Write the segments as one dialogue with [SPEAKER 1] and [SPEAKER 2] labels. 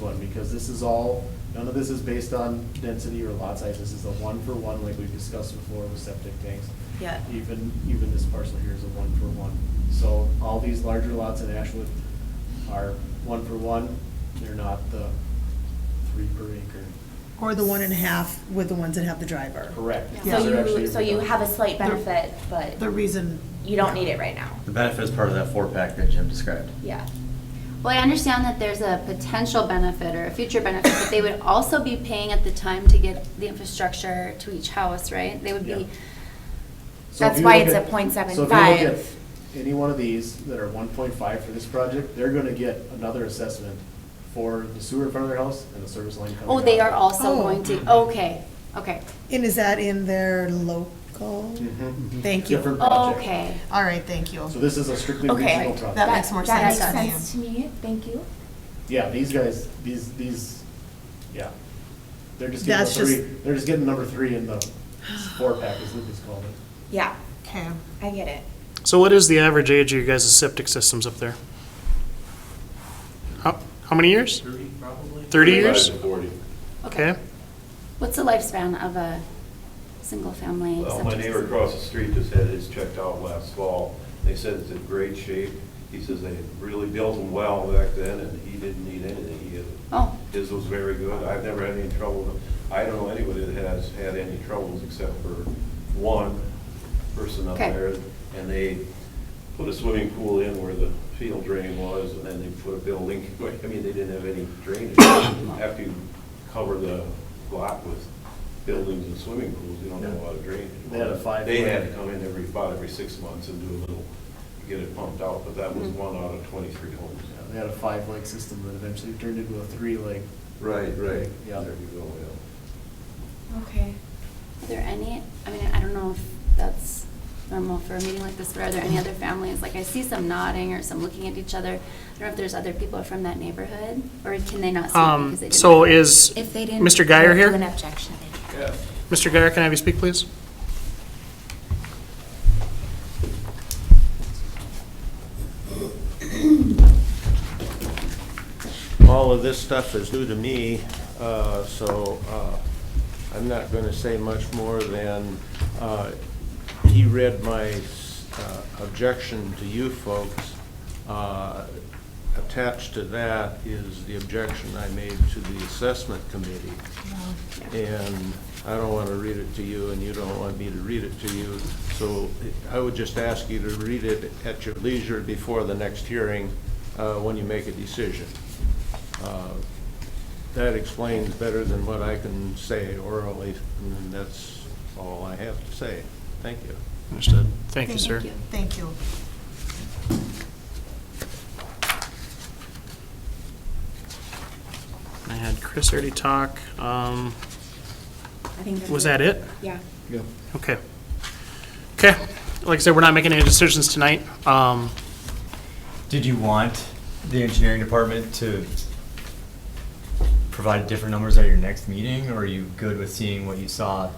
[SPEAKER 1] one, because this is all, none of this is based on density or lot size. This is a one-for-one, like we've discussed before with septic tanks.
[SPEAKER 2] Yeah.
[SPEAKER 1] Even, even this parcel here is a one-for-one. So all these larger lots in Ashwood are one-for-one. They're not the three per acre.
[SPEAKER 3] Or the one and a half with the ones that have the driver.
[SPEAKER 1] Correct.
[SPEAKER 3] Yeah.
[SPEAKER 2] So
[SPEAKER 1] They're actually
[SPEAKER 2] you, so you have a slight
[SPEAKER 3] They're-
[SPEAKER 2] benefit,
[SPEAKER 3] The
[SPEAKER 2] but
[SPEAKER 3] reason.
[SPEAKER 2] you don't need it right now.
[SPEAKER 4] The benefit is part of that four pack that Jim described.
[SPEAKER 2] Yeah.
[SPEAKER 5] Well, I understand that there's a potential benefit or a future benefit, but they would also be paying at the time to get the infrastructure to each house, right? They would
[SPEAKER 1] Yeah.
[SPEAKER 5] be,
[SPEAKER 1] So if
[SPEAKER 2] That's
[SPEAKER 1] you
[SPEAKER 2] why
[SPEAKER 1] look
[SPEAKER 2] it's
[SPEAKER 1] at-
[SPEAKER 2] at 0.75.
[SPEAKER 1] So if you look at any one of these that are one point five for this project, they're gonna get another assessment for the sewer in front of their house and the service line coming
[SPEAKER 5] oh, they
[SPEAKER 1] out.
[SPEAKER 5] are also
[SPEAKER 3] Oh.
[SPEAKER 5] going
[SPEAKER 6] Mm-hmm.
[SPEAKER 5] to, okay, okay.
[SPEAKER 3] And is that in their local?
[SPEAKER 1] Mhm.
[SPEAKER 3] Thank you.
[SPEAKER 1] Different project.
[SPEAKER 5] Okay.
[SPEAKER 3] All right, thank you.
[SPEAKER 1] So this is a strictly
[SPEAKER 2] Okay.
[SPEAKER 1] regional
[SPEAKER 3] That
[SPEAKER 1] project.
[SPEAKER 3] makes more
[SPEAKER 2] That
[SPEAKER 3] sense to me.
[SPEAKER 2] makes sense to me, thank you.
[SPEAKER 1] Yeah, these guys, these, these, yeah. They're just getting
[SPEAKER 3] That's
[SPEAKER 1] the three,
[SPEAKER 3] just-
[SPEAKER 1] they're just getting number three in the four pack, as Lucas called it.
[SPEAKER 2] Yeah,
[SPEAKER 3] Okay.
[SPEAKER 2] I get it.
[SPEAKER 7] So what is the average age of your guys' septic systems up there? How, how many years? Thirty, probably. Thirty years? Okay,
[SPEAKER 5] What's the lifespan of a single-family
[SPEAKER 6] Well, Uh, my
[SPEAKER 5] septic
[SPEAKER 6] neighbor
[SPEAKER 5] system?
[SPEAKER 6] across the street just had his checked out last fall. They said it's in great shape. He says they really built them well back then, and he didn't need anything. He had-
[SPEAKER 5] Oh.
[SPEAKER 6] His was very good. I've never had any trouble. with- I don't know anybody that has had any troubles except for one person up
[SPEAKER 5] Okay.
[SPEAKER 6] there. And they put a swimming pool in where the field drain was, and then they put a building, I mean, they didn't have any drainage. After you cover the lot with buildings and swimming pools, you don't have a lot of drainage.
[SPEAKER 1] They had a five-
[SPEAKER 6] They had to come in every, about every six months and do a little, get it pumped out, but that was one out of twenty-three homes.
[SPEAKER 1] Yeah, They had a five-leg system that eventually turned into a three-leg.
[SPEAKER 6] Right, right.
[SPEAKER 1] Yeah.
[SPEAKER 6] There you go, yeah.
[SPEAKER 2] Okay.
[SPEAKER 5] Are there any, I mean, I don't know if that's normal for a meeting like this, but are there any other families? Like, I see some nodding or some looking at each other. I don't know if there's other people from that neighborhood, or can they not speak
[SPEAKER 7] um,
[SPEAKER 5] because they didn't?
[SPEAKER 7] so is
[SPEAKER 2] If they didn't.
[SPEAKER 7] Mr. Geyer
[SPEAKER 2] Do an
[SPEAKER 7] here?
[SPEAKER 2] objection.
[SPEAKER 7] Mr. Geyer, can I have you speak, please?
[SPEAKER 8] all of this stuff is new to me, uh, so uh, I'm not going to say much more than, uh, he read my uh, objection to you folks. Uh, Attached to that is the objection I made to the assessment committee. And I don't want to read it to you, and you don't want me to read it to you, so I would just ask you to read it at your leisure before the next hearing, uh, when you make a decision. Uh, That explains better than what I can say orally, and that's all I have to say. Thank you.
[SPEAKER 7] Understood. Thank you, sir.
[SPEAKER 3] Thank you.
[SPEAKER 7] I had Chris already talk. Um,
[SPEAKER 2] I think that's
[SPEAKER 7] was that it?
[SPEAKER 2] Yeah.
[SPEAKER 7] Okay. Okay, like I said, we're not making any decisions tonight. Um,
[SPEAKER 9] Did you want the engineering department to provide different numbers at your next meeting, or are you good with seeing what you saw?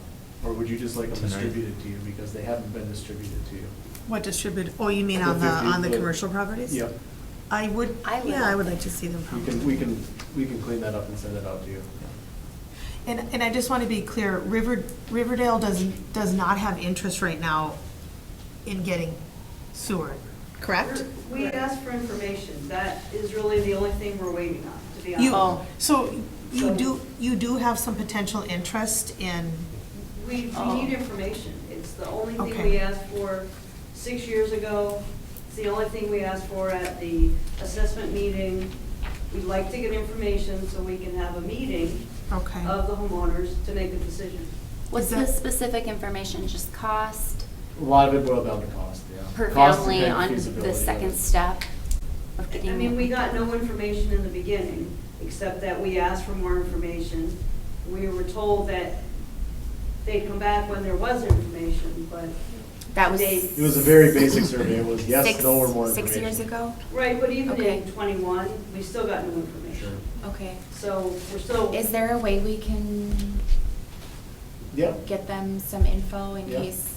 [SPEAKER 1] Or would you just like them
[SPEAKER 9] Tonight.
[SPEAKER 1] distributed to you, because they haven't been distributed to you?
[SPEAKER 3] What distribute, oh, you mean on the, on the commercial properties?
[SPEAKER 1] Yep,
[SPEAKER 3] I would,
[SPEAKER 5] I would
[SPEAKER 3] yeah, I would
[SPEAKER 5] like
[SPEAKER 3] like to see them
[SPEAKER 1] we
[SPEAKER 3] probably.
[SPEAKER 1] can, we can, we can clean that up and send it out to you.
[SPEAKER 3] And, and I just want to be clear, River, Riverdale does, does not have interest right now in getting sewer, correct?
[SPEAKER 10] We asked for information. That is really the only thing we're waiting on, to be
[SPEAKER 3] You,
[SPEAKER 10] honest.
[SPEAKER 3] so you do, you do have some potential interest in,
[SPEAKER 10] We, we need information. It's the only thing
[SPEAKER 3] Okay.
[SPEAKER 10] we asked for six years ago. It's the only thing we asked for at the assessment meeting. We'd like to get information so we can have a meeting
[SPEAKER 3] okay.
[SPEAKER 10] of the homeowners to make a decision.
[SPEAKER 5] What's
[SPEAKER 3] Is that-
[SPEAKER 5] the specific information, just cost
[SPEAKER 1] A lot of it boiled down to cost, yeah.
[SPEAKER 5] per
[SPEAKER 1] Cost and
[SPEAKER 5] family
[SPEAKER 1] then
[SPEAKER 5] on
[SPEAKER 1] feasibility of
[SPEAKER 5] the second
[SPEAKER 1] it.
[SPEAKER 5] step of
[SPEAKER 10] I
[SPEAKER 5] getting?
[SPEAKER 10] mean, we got no information in the beginning, except that we asked for more information. We were told that they'd come back when there was information, but
[SPEAKER 2] That was.
[SPEAKER 10] They-
[SPEAKER 1] It was a very basic survey, it was yes,
[SPEAKER 2] six-
[SPEAKER 1] no, or more information.
[SPEAKER 2] Six years ago?
[SPEAKER 10] Right, but even
[SPEAKER 2] Okay.
[SPEAKER 10] in twenty-one, we still got no
[SPEAKER 1] Sure.
[SPEAKER 10] information.
[SPEAKER 2] Okay.
[SPEAKER 10] So we're still.
[SPEAKER 2] Is there a way we can
[SPEAKER 1] Yeah,
[SPEAKER 2] get them some info in
[SPEAKER 1] Yeah.
[SPEAKER 2] case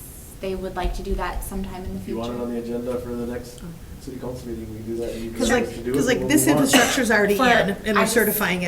[SPEAKER 2] they would like to do that sometime in the
[SPEAKER 1] if
[SPEAKER 2] future?
[SPEAKER 1] you want it on the agenda for the next city council meeting, we can do that. and you can
[SPEAKER 3] Because
[SPEAKER 1] choose
[SPEAKER 3] like,
[SPEAKER 1] to do it
[SPEAKER 3] because
[SPEAKER 1] when
[SPEAKER 3] like
[SPEAKER 1] we
[SPEAKER 3] this
[SPEAKER 1] want.
[SPEAKER 3] infrastructure's already in,
[SPEAKER 2] For-
[SPEAKER 3] and we're
[SPEAKER 2] I just-
[SPEAKER 3] certifying it